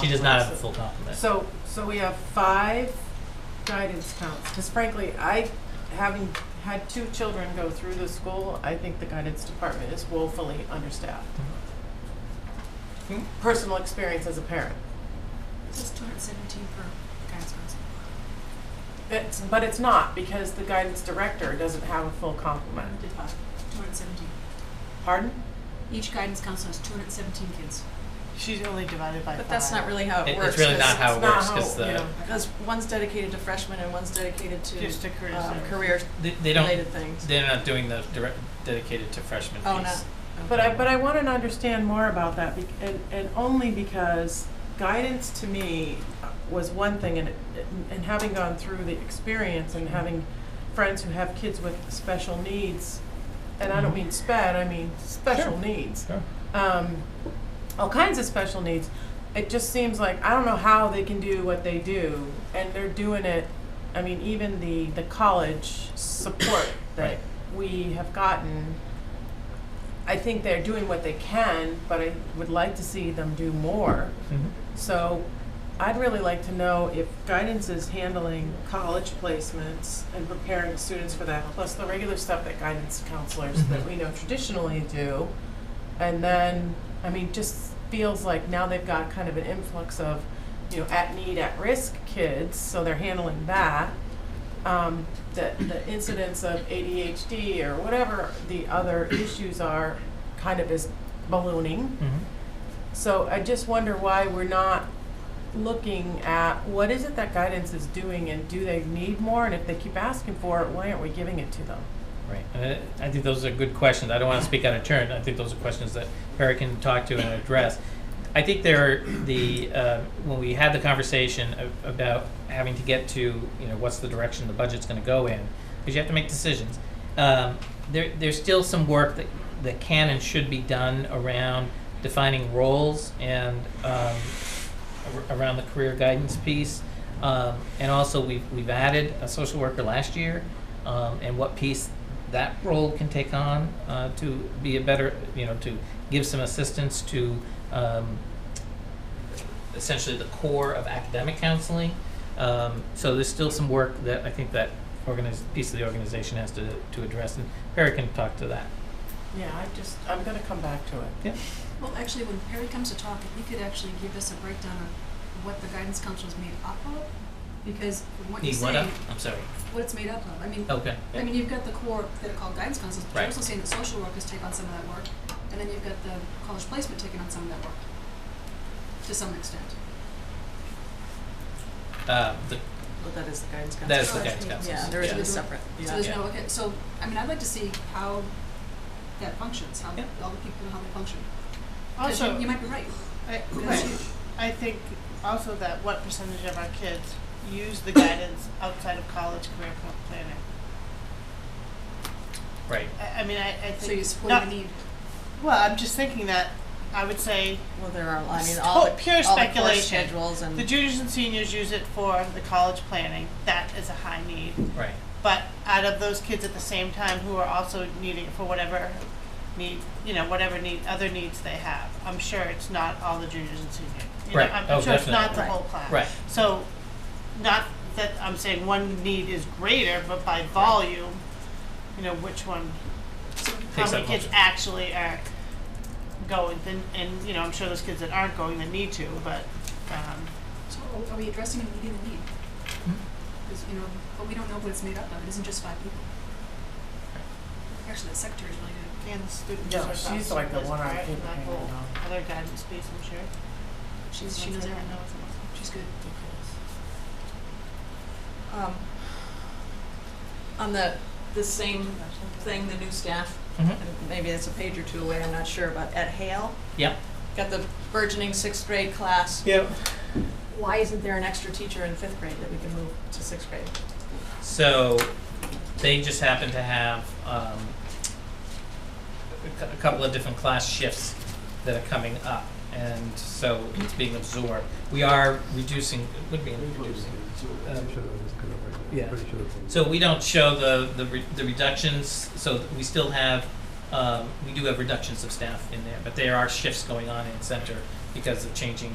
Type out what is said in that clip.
She does not have a complement. full complement. So, so we have five guidance counts, because frankly, I, having had two children go through the school, I think the guidance department is woefully understaffed. Hmm. Personal experience as a parent. It's two hundred seventeen per guidance counselor. It's, but it's not, because the guidance director doesn't have a full complement. Did five. Two hundred seventeen. Pardon? Each guidance counselor has two hundred seventeen kids. She's only divided by five. But that's not really how it, It- works. it's really not how it it's not works how- because yeah. the, Because one's dedicated to freshmen and one's dedicated to Just to career um, services. career they, they don't, related things. they're not doing the direct, dedicated to freshman Oh, no. piece. But I, but I want to understand more about that, bec- and, and only because guidance to me was one thing, and, and having gone through the experience and having friends who have kids with special needs, and I don't mean sped, I mean special Sure. needs, Sure. um, all kinds of special needs. It just seems like, I don't know how they can do what they do, and they're doing it, I mean, even the, the college support that Right. we have gotten, I think they're doing what they can, but I would like to see them do more. Mhm. mm-hmm. So I'd really like to know if guidance is handling college placements and preparing students for that, plus the regular stuff that guidance counselors that Mhm. we know traditionally do. And then, I mean, just feels like now they've got kind of an influx of, you know, at need, at risk kids, so they're handling that. Um, the, the incidence of ADHD or whatever the other issues are kind of is ballooning. Mhm. So I just wonder why we're not looking at what is it that guidance is doing and do they need more? And if they keep asking for it, why aren't we giving it to them? Right. And I I think those are good questions. I don't want to speak out of turn. I think those are questions that Eric can talk to and address. I think there are the uh, when we had the conversation a- about having to get to you know what's the direction the budget's going to go in because you have to make decisions. Um, there, there's still some work that that can and should be done around defining roles and um, ar- around the career guidance piece. Um, and also, we've, we've added a social worker last year um, and what piece that role can take on uh, to be a better, you know, to give some assistance to um, essentially the core of academic counseling. Um, so there's still some work that I think that organiz- piece of the organization has to, to address, and Perry can talk to that. Yeah, I just, I'm gonna come back to it. Well, actually, when Perry comes to talk, if he could actually give us a breakdown of what the guidance counselor is made up of, because from what you're Need one saying, up? I'm sorry. what it's made up of, I mean, Okay. I mean, you've got the core that are called guidance counselors, but Oh, Right. you're also saying that social workers take on some of that work, and then you've got the college placement taking on some of that work, to some extent. Uh, the, Well, that is the guidance counselor. that is the Sorry. guidance counselor. Yeah, there isn't Yeah. a separate. So Yeah. there's Yeah. no, okay, so, I mean, I'd like to see how that functions, how Yeah. all the people, how they function. 'Cause you- Also, You might be right, I, that's right. huge. I think also that what percentage of our kids use the guidance outside of college career pl- planning. Right. I, I mean, I, I think. So you support not- the need. Well, I'm just thinking that I would say Well, there are, I mean, It's all the, tot- pure all the course speculation. schedules the and, juniors and seniors use it for the college planning. That is a high need. Right. But out of those kids at the same time who are also needing it for whatever need, you know, whatever need, other needs they have, I'm sure it's not all the juniors and seniors. You Right. know, I'm Oh, sure it's not definitely. the Right. whole class. Right. So, not that I'm saying one need is greater, but by volume, you know, which one, how Takes many up kids most of- actually are going, and, and, you know, I'm sure those kids that aren't going that need to, but, um, So are- are we addressing and meeting the need? Hmm. Because, you know, but we don't know what it's made up of, it isn't just five people. Actually, the secretary's really good. and the students Yeah, are she's also like the as one on part of paper that hanging whole on. Other guidance piece, I'm sure. She's, she knows everything, she's good. um, on the, the same thing, the new staff, Mhm. and maybe it's a page or two away, I'm not sure, but at Hale, Yep. got the burgeoning sixth grade class. Yep. Why isn't there an extra teacher in fifth grade that we can move to sixth grade? So they just happen to have um, a cou- a couple of different class shifts that are coming up, and so it's being absorbed. We are reducing, it would be reducing. Um, yeah. So we don't show the, the, re- the reductions, so we still have, um, we do have reductions of staff in there, but there are shifts going on in center because of changing